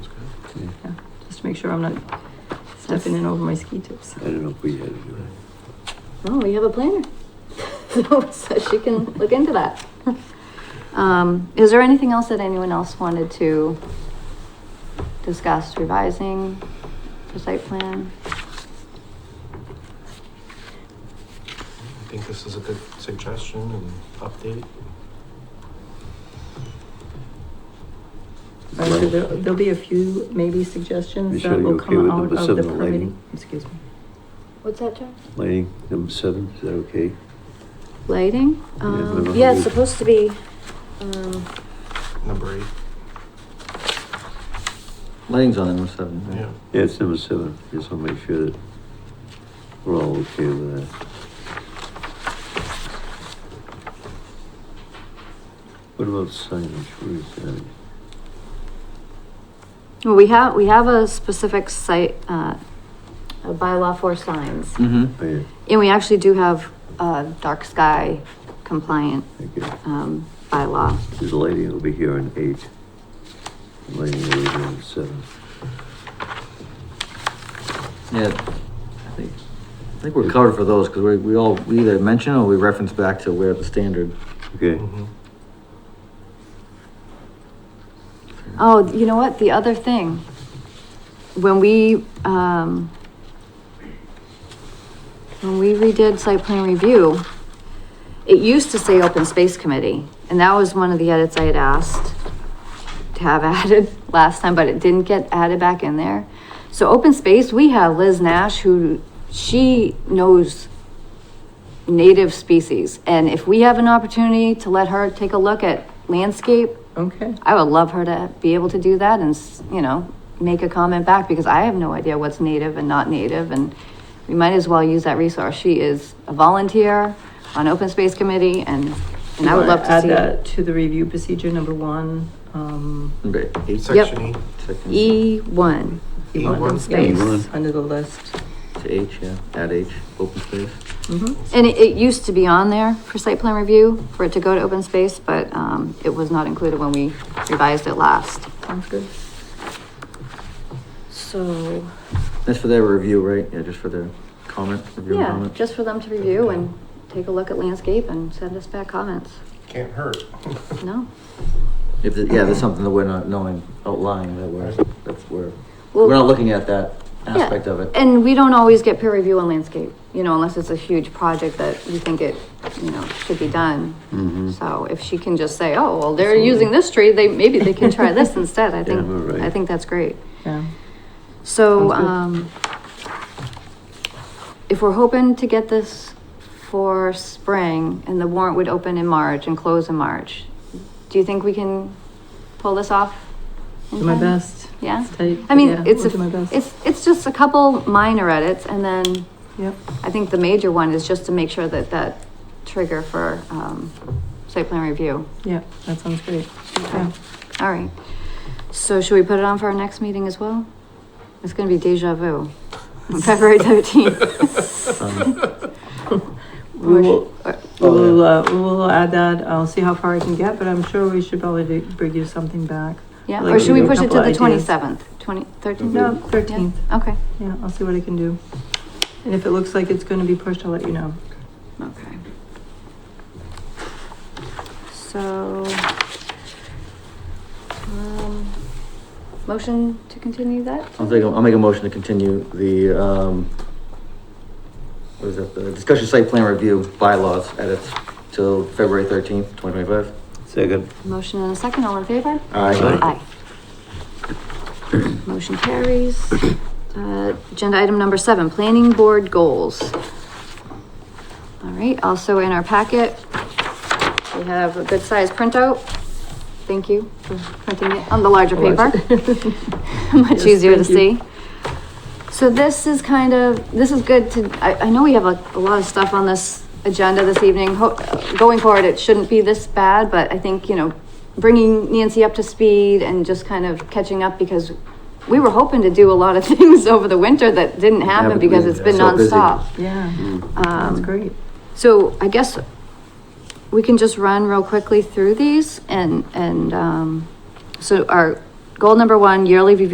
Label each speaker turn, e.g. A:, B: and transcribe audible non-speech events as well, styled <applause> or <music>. A: just to make sure I'm not stepping in over my ski tips.
B: I don't know if we had to do that.
A: Oh, we have a planner. <laughs> So, so she can look into that. Um, is there anything else that anyone else wanted to discuss revising the site plan?
C: I think this is a good suggestion and update.
A: Or so there, there'll be a few maybe suggestions
B: Michelle,
A: that
B: you
A: will
B: okay with
A: come out
B: number
A: of the
B: seven, the lighting?
A: permitting. Excuse me. What's that, John?
B: Lighting, number seven, is that okay?
A: Lighting?
B: Yeah,
A: Um,
B: number
D: Yeah,
B: eight.
D: it's supposed to be, um,
C: Number eight,
E: Lighting's on number seven. right?
C: yeah.
B: Yeah, it's number seven, just want to make sure that we're all okay with that. What about signage, where is that?
A: well, we have, we have a specific site, uh, a bylaw for signs.
E: Mm-hmm.
B: Oh, yeah,
A: And we actually do have a dark sky compliant,
B: okay,
A: um, bylaw.
B: there's lighting over here on eight. Lighting over here on seven.
E: Yeah, I think, I think we're covered for those, because we, we all, we either mention or we reference back to where the standard.
B: Okay,
C: Mhm.
A: Oh, you know what? The other thing, when we, um, when we redid site plan review, it used to say open space committee, and that was one of the edits I had asked to have <laughs> added last time, but it didn't get added back in there. So open space, we have Liz Nash, who, she knows native species, and if we have an opportunity to let her take a look at landscape,
F: Okay.
A: I would love her to be able to do that and, s- you know, make a comment back because I have no idea what's native and not native and we might as well use that resource. She is a volunteer on open space committee and, and I would love to
F: Add
A: see.
F: that to the review procedure, number one, um,
E: Number eight,
C: Section E,
E: section
A: E one,
F: E
C: Number
F: one
C: one.
F: space
B: E1.
F: under the list.
E: to H, yeah, add H, open space.
F: Mhm.
A: and it, it used to be on there for site plan review for it to go to open space, but, um, it was not included when we revised it last.
F: Sounds good.
D: so,
E: That's for their review, right? Yeah, just for their comment, review and
A: Yeah,
E: comment.
A: just for them to review and take a look at landscape and send us back comments.
C: can't hurt.
A: No?
E: If, the- yeah, there's something that we're not knowing, outlying that we're, that's where,
A: Well-
E: we're not looking at that
A: Yeah,
E: aspect of it.
A: And we don't always get peer review on landscape, you know, unless it's a huge project that you think it, you know, should be done.
B: Mhm.
A: So if she can just say, oh, well, they're using this tree, they, maybe they can try this instead, I
B: Yeah, we're
A: think,
B: right.
A: I think that's great.
F: Yeah.
A: So,
F: Sounds good.
A: um, if we're hoping to get this for spring and the warrant would open in March and close in March, do you think we can pull this off? in
F: Do my
A: time?
F: best.
A: Yeah?
F: It's tight,
A: I mean,
F: but yeah,
A: it's,
F: I'll do my
A: a-
F: best.
A: it's, it's just a couple minor edits and then
F: Yep.
A: I think the major one is just to make sure that that trigger for, um, site plan review.
F: Yeah, that sounds great. Yeah.
A: All right. So should we put it on for our next meeting as well? It's gonna be
F: <laughs>
A: deja vu, on February thirteenth.
E: Um,
F: We will, we
E: Oh, yeah.
F: will, uh, we will add that. I'll see how far I can get, but I'm sure we should probably do- bring you something back.
A: Yeah,
F: Like
A: or should we
F: a
A: push it to
F: couple
A: the
F: ideas.
A: twenty-seventh, twenty, thirteenth?
F: No, thirteenth.
A: Okay,
F: Yeah, I'll see what I can do. And if it looks like it's gonna be pushed, I'll let you know.
A: okay. So, um, motion to continue that?
E: I'll take, a- I'll make a motion to continue the, um, what is that, the discussion site plan review bylaws edits till February thirteenth, twenty twenty-five.
B: second,
A: Motion and a second, all in favor?
B: Aye.
A: Aye. Motion carries. Uh, Agenda item number seven, planning board goals. All right, also in our packet, we have a good size printout. Thank you for printing it on the larger paper. <laughs> Much
F: Yes,
A: easier to
F: thank you.
A: see. So this is kind of, this is good to, I, I know we have a, a lot of stuff on this agenda this evening. Ho- Going forward, it shouldn't be this bad, but I think, you know, bringing Nancy up to speed and just kind of catching up because we were hoping to do a lot of <laughs> things over the winter that didn't happen
E: Haven't
A: because
E: been
A: it's been
E: so busy.
A: nonstop.
F: <laughs> Yeah, that's
A: Um,
F: great.
A: so I guess we can just run real quickly through these and, and, um, so our goal number one, yearly review